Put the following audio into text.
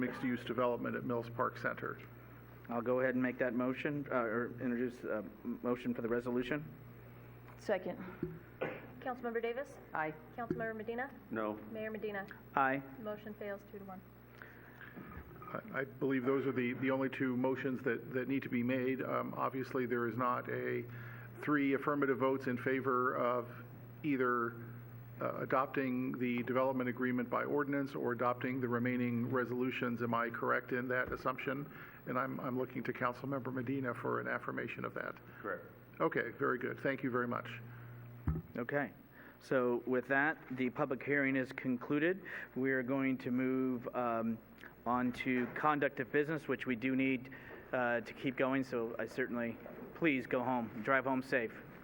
mixed-use development at Mills Park Center. I'll go ahead and make that motion, uh, or introduce a motion for the resolution. Second. Councilmember Davis? Aye. Councilmember Medina? No. Mayor Medina? Aye. Motion fails two to one. I- I believe those are the, the only two motions that, that need to be made. Um, Obviously, there is not a, three affirmative votes in favor of either uh, adopting the development agreement by ordinance or adopting the remaining resolutions. Am I correct in that assumption? And I'm, I'm looking to Councilmember Medina for an affirmation of that. Correct. Okay, very good. Thank you very much. Okay. So with that, the public hearing is concluded. We are going to move um, on to conduct of business, which we do need uh, to keep going, so I certainly, please go home, drive home safe.